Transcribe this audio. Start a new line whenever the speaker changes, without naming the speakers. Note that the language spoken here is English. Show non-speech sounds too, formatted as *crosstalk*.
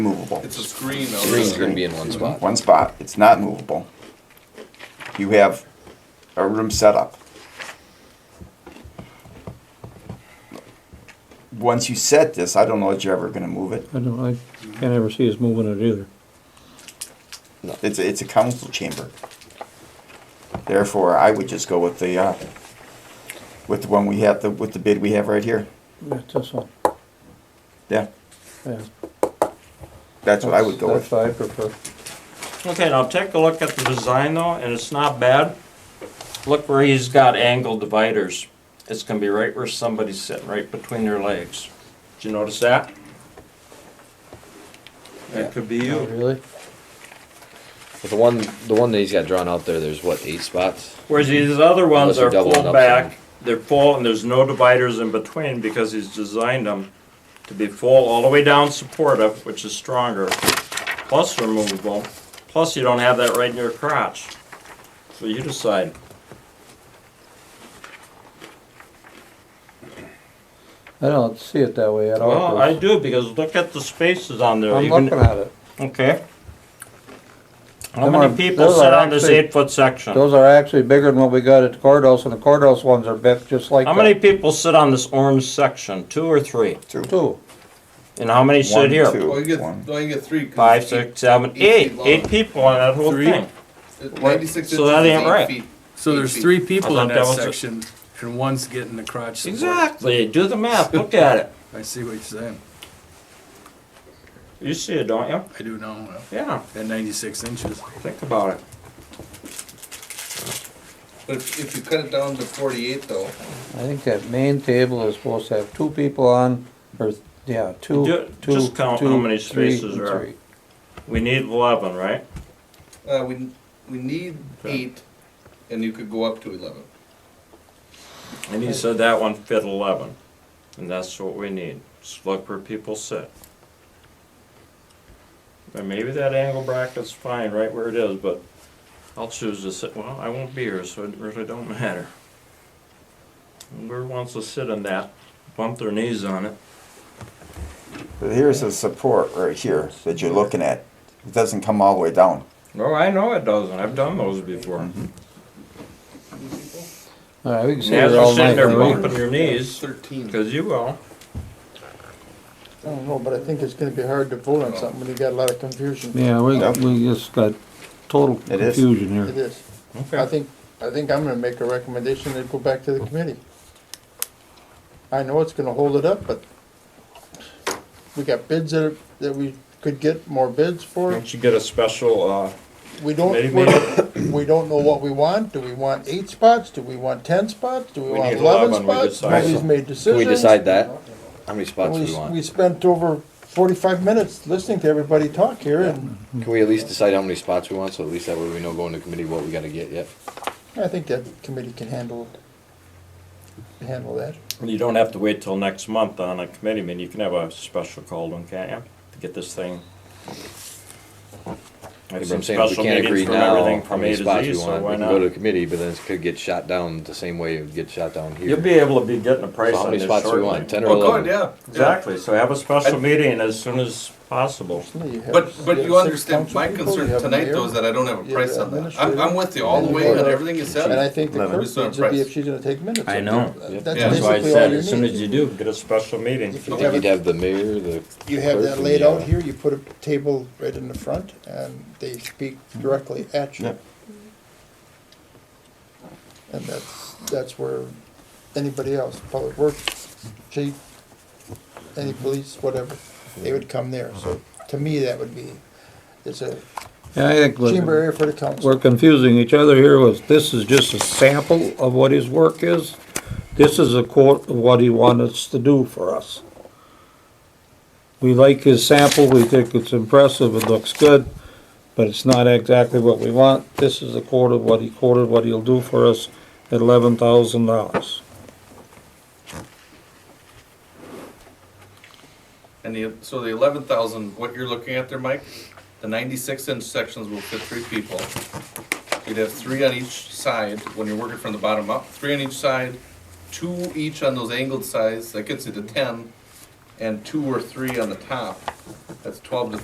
movable.
It's a screen though.
Screen's gonna be in one spot.
One spot, it's not movable. You have a room set up. Once you set this, I don't know that you're ever gonna move it.
I don't, I can't ever see us moving it either.
It's, a- it's a council chamber. Therefore, I would just go with the, uh, with the one we have, the, with the bid we have right here.
That's this one,
Yeah,
yeah.
that's what I would go with.
That's what I prefer.
Okay, now take a look at the design though, and it's not bad. Look where he's got angled dividers. It's gonna be right where somebody's sitting, right between their legs. Did you notice that?
That could be
Oh,
you.
Really? But the one, the one that he's got drawn out there, there's what, eight spots?
Whereas these other
Unless
ones
you're
are
doubling
full
up
back,
some.
they're full and there's no dividers in between because he's designed them to be full all the way down supportive, which is stronger, plus removable, plus you don't have that right in your crotch. So you decide.
I don't see it that way at all.
Well, I
Bruce.
do because look at the spaces on there.
I'm
You can-
looking at it.
Okay. How
Them
many
are-
people
those
sit
are
on this
actually-
eight-foot section?
Those are actually bigger than what we got at the courthouse, and the courthouse ones are bent just like
How
that.
many people sit on this orange section, two or three?
Two.
And how many
One,
sit here?
two,
Well, you
one.
get, well, you get three. 'cause
Five,
eight-
six, seven,
eight
eight.
feet
Eight
long.
people on that whole
Three?
thing.
uh, Ninety-six inches
So that
is
ain't
eight
right.
feet.
So
Eight
there's
feet.
three
I
people
thought
in
that
that
was a-
section, and one's getting the crotch support.
Exactly, do the math, look at it.
I see what you're saying.
You see it, don't you?
I do know, uh,
Yeah,
at ninety-six inches.
think about it.
But if, if you cut it down to forty-eight though,
I think that main table is supposed to have two people on, or, yeah, two,
Do-
two,
just count how
two,
many
three,
spaces
and
are-
three.
We need eleven, right?
uh, we, we need eight, and you could go up to eleven.
And he said that one fit eleven, and that's what we need, just look where people sit. And maybe that angle bracket's fine right where it is, but I'll choose to sit, well, I won't be here, so it really don't matter. Whoever wants to sit in that, bump their knees on it.
But Here's the support right here that you're looking at. It doesn't come all the way down.
No, Oh, I know it doesn't, I've done those before.
All right, we can Mm-hmm. sit
And as
here
you're
all
sitting
night.
there
right?
bumping your knees,
Thirteen.
because you will,
I don't know, but I think it's gonna be hard to vote on something when you got a lot of confusion.
Yeah, we,
Yep.
we just got total
It is.
confusion
It
here.
is. I
okay,
think, I think I'm gonna make a recommendation and go back to the committee. I know it's gonna hold it up, but we got bids that, are- that we could get more bids for.
don't you get a special, uh,
We don't,
Committee
we *coughs* we don't know what we want. Do we want eight spots? Do we want ten spots? Do we
We
want
need
eleven
11, we
spots?
decide.
Nobody's made
Can
decisions.
we decide that? How many spots do
We,
we
we
want?
spent over forty-five minutes listening to everybody talk here and
Can we at least decide how many spots we want, so at least that way we know going to committee what we gotta get yet?
I think that committee can handle, handle that.
You don't have to wait till next month on a committee meeting, you can have a special call one, can't you, to get this thing? I
Yeah,
have
But I'm
some
saying if
special
we can't
meetings
agree
from
now
everything
how
from
many
A to
spots
Z,
we
so
want, we
why
can go to
not?
the committee, but then it could get shot down the same way it would get shot down
You'll
here.
be able to be getting a price
So how
on
many
this
spots do we want,
shortly.
ten or
Well, Oh, good,
eleven?
yeah.
Exactly, so have a special meeting as soon as possible.
But, but you understand, my concern tonight though is that I don't have a
you
price
have
on that. I'm,
administrator,
I'm with you all the
and
way
you
on
have-
everything you
And I
said.
think the
Eleven.
clerk
Just not a
needs to be
price.
if she's gonna take minutes.
I
of
know.
that.
Yep.
That's
Yeah.
That's why I
basically all
said,
you
as soon
need.
as you do, get a special meeting.
I
If you
think
have,
you'd
it-
have the mayor, the.
you have
clerk,
that
and
laid
the, uh,
out here, you put a table right in the front and they speak directly at you.
Yep.
And that's, that's where anybody else, public works, chief, any police, whatever, they would come there. So to me, that would be, it's a
Yeah, I think we're-
chamber area for the council.
we're confusing each other here with, this is just a sample of what his work is. This is a quote of what he wants us to do for us. We like his sample, we think it's impressive, it looks good, but it's not exactly what we want. This is a quote of what he quoted, what he'll do for us at eleven thousand dollars.
And the, so the eleven thousand, what you're looking at there, Mike, the ninety-six inch sections will fit three people. You'd have three on each side when you're working from the bottom up, three on each side, two each on those angled sides, that gets you to ten, and two or three on the top. That's twelve to